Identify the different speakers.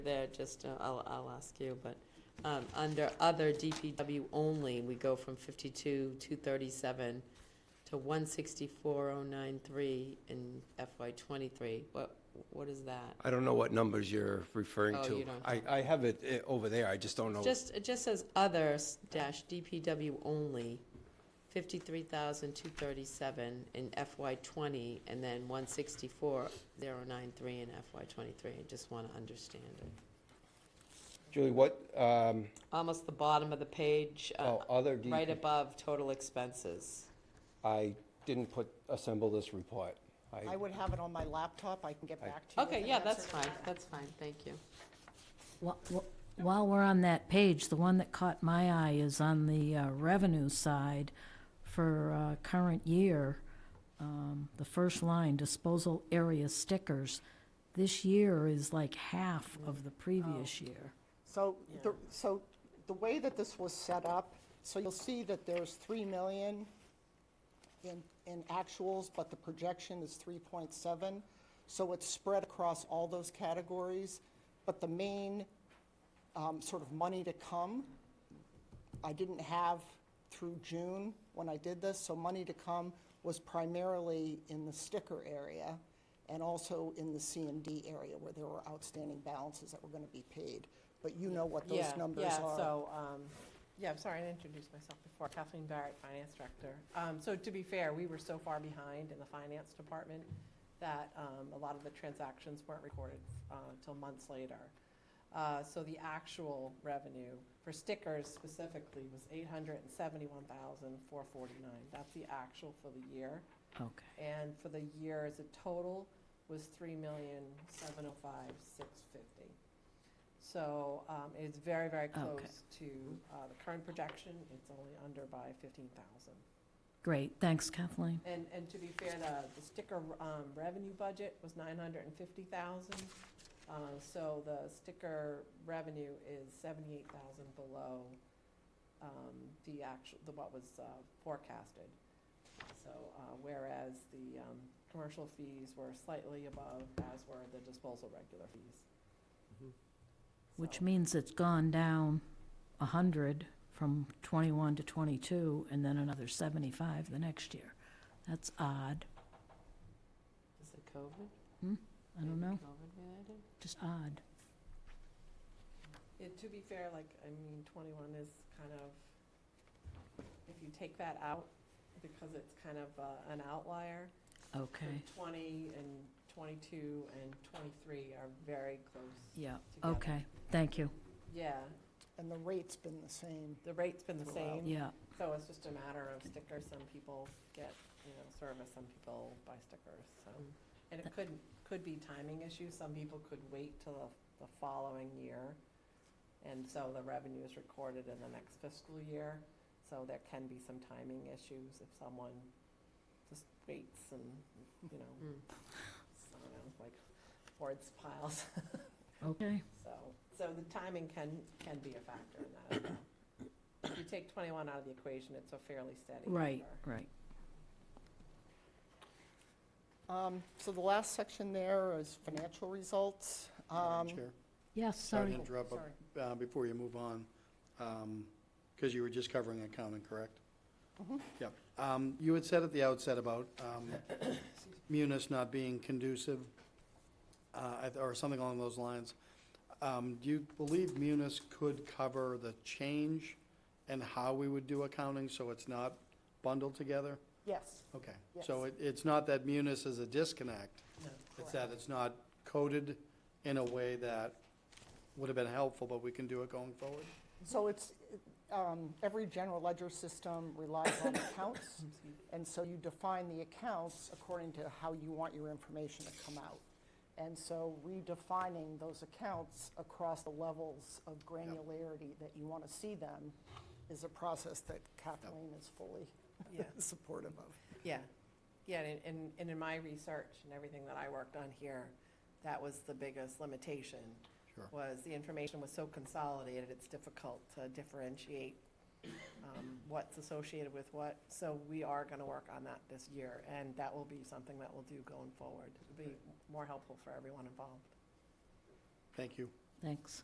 Speaker 1: there, just, uh, I'll, I'll ask you, but, um, under other DPW only, we go from fifty-two, two thirty-seven to one sixty-four, oh nine three in FY twenty-three. What, what is that?
Speaker 2: I don't know what numbers you're referring
Speaker 1: Oh,
Speaker 2: to.
Speaker 1: you don't
Speaker 2: I, I have it eh, over there, I just don't know.
Speaker 1: Just, it just says others dash DPW only, fifty-three thousand, two thirty-seven in FY twenty, and then one sixty-four, zero nine three in FY twenty-three. I just wanna understand it.
Speaker 2: Julie, what, um,
Speaker 1: Almost the bottom of the page, uh,
Speaker 2: oh, other, D-
Speaker 1: right above total expenses.
Speaker 2: I didn't put, assemble this report.
Speaker 3: I would have it on my laptop, I can get back to you. with
Speaker 1: Okay,
Speaker 3: an
Speaker 1: yeah, that's
Speaker 3: answer.
Speaker 1: fine, that's fine, thank you.
Speaker 4: Wha- wha- While we're on that page, the one that caught my eye is on the uh, revenue side for uh, current year, um, the first line, disposal area stickers. This year is like half of the previous year.
Speaker 3: So, the- so the way that this was set up, so you'll see that there's 3 million in, in actuals, but the projection is 3.7. So it's spread across all those categories, but the main um, sort of money to come, I didn't have through June when I did this, so money to come was primarily in the sticker area and also in the CMD area where there were outstanding balances that were going to be paid. But you know what those
Speaker 5: Yeah,
Speaker 3: numbers
Speaker 5: yeah,
Speaker 3: are.
Speaker 5: So, um, yeah, I'm sorry, I didn't introduce myself before. Kathleen Barrett, Finance Director. Um, So to be fair, we were so far behind in the Finance Department that um, a lot of the transactions weren't recorded until months later. Uh, So the actual revenue for stickers specifically was $871,449. That's the actual for the year.
Speaker 4: Okay.
Speaker 5: And for the year as a total was three million, seven oh five, six fifty. So, um, it's very, very close to, uh, the current projection, it's only under by fifteen thousand.
Speaker 4: Great, thanks Kathleen.
Speaker 5: And, and to be fair, the, the sticker, um, revenue budget was nine hundred and fifty thousand. Uh, so the sticker revenue is seventy-eight thousand below, um, the actual, the, what was, uh, forecasted. So, uh, whereas the, um, commercial fees were slightly above, as were the disposal regular fees.
Speaker 4: Which
Speaker 5: So-
Speaker 4: means it's gone down a hundred from twenty-one to twenty-two and then another seventy-five the next year. That's odd.
Speaker 1: Is it COVID?
Speaker 4: I don't know,
Speaker 1: COVID related?
Speaker 4: just odd.
Speaker 5: Yeah, to be fair, like, I mean, twenty-one is kind of, if you take that out, because it's kind of uh, an outlier. so
Speaker 4: Okay,
Speaker 5: Twenty and twenty-two and twenty-three are very close.
Speaker 4: yeah,
Speaker 5: Together.
Speaker 4: okay, thank you,
Speaker 5: Yeah,
Speaker 3: And the rate's been the same.
Speaker 5: the rate's been the
Speaker 3: Wow.
Speaker 5: same,
Speaker 4: yeah.
Speaker 5: so it's just a matter of stickers. Some people get, you know, service, some people buy stickers, so.
Speaker 1: Mm.
Speaker 5: And it could, could be timing issues. Some people could wait till the, the following year. And so the revenue is recorded in the next fiscal year. So there can be some timing issues if someone just waits and, you know,
Speaker 1: Mm.
Speaker 5: I don't know, like boards piles.
Speaker 4: Okay.
Speaker 5: So, so the timing can, can be a factor in that as well. If you take twenty-one out of the equation, it's a fairly steady number.
Speaker 4: Right, right.
Speaker 3: Um, So the last section there is financial results. Um,
Speaker 6: Madam Chair,
Speaker 4: Yes,
Speaker 6: sorry
Speaker 4: sorry.
Speaker 6: to interrupt, but,
Speaker 5: Sorry.
Speaker 6: uh, before you move on, because you were just covering accounting, correct? Yeah. Um, You had said at the outset about um, Munis not being conducive, uh, I th- or something along those lines. Um, Do you believe Munis could cover the change and how we would do accounting, so it's not bundled together?
Speaker 3: Yes,
Speaker 6: Okay. So it- it's not that Munis is a disconnect?
Speaker 5: No.
Speaker 6: It's that it's not coded in a way that would have been helpful, but we can do it going forward.
Speaker 3: so it's, um, every general ledger system relies on accounts, and so you define the accounts according to how you want your information to come out. And so redefining those accounts across the levels of granularity that you want to see them is a process that Kathleen is fully
Speaker 5: Yeah.
Speaker 3: supportive of.
Speaker 5: Yeah, yeah, and, and, and in my research and everything that I worked on here, that was the biggest limitation.
Speaker 6: Sure.
Speaker 5: Was the information was so consolidated, it's difficult to differentiate, um, what's associated with what. So we are gonna work on that this year, and that will be something that we'll do going forward. It'll be more helpful for everyone involved.
Speaker 6: Thank you.
Speaker 4: Thanks.